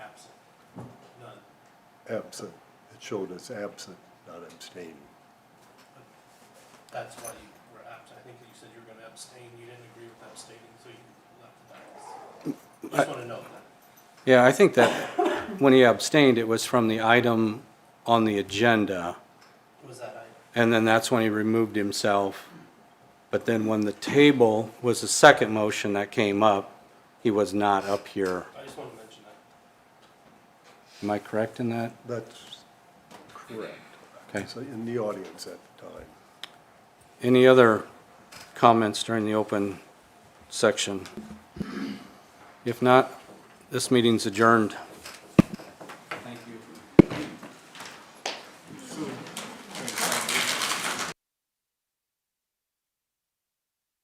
absent. It showed us absent, not abstaining. That's why you were absent, I think you said you were gonna abstain, you didn't agree with abstaining, so you left the balance. Just wanna know that. Yeah, I think that when he abstained, it was from the item on the agenda, Was that I? and then that's when he removed himself. But then when the table was the second motion that came up, he was not up here. I just wanna mention that. Am I correct in that? That's correct. Okay. So in the audience at the time. Any other comments during the open section? If not, this meeting's adjourned.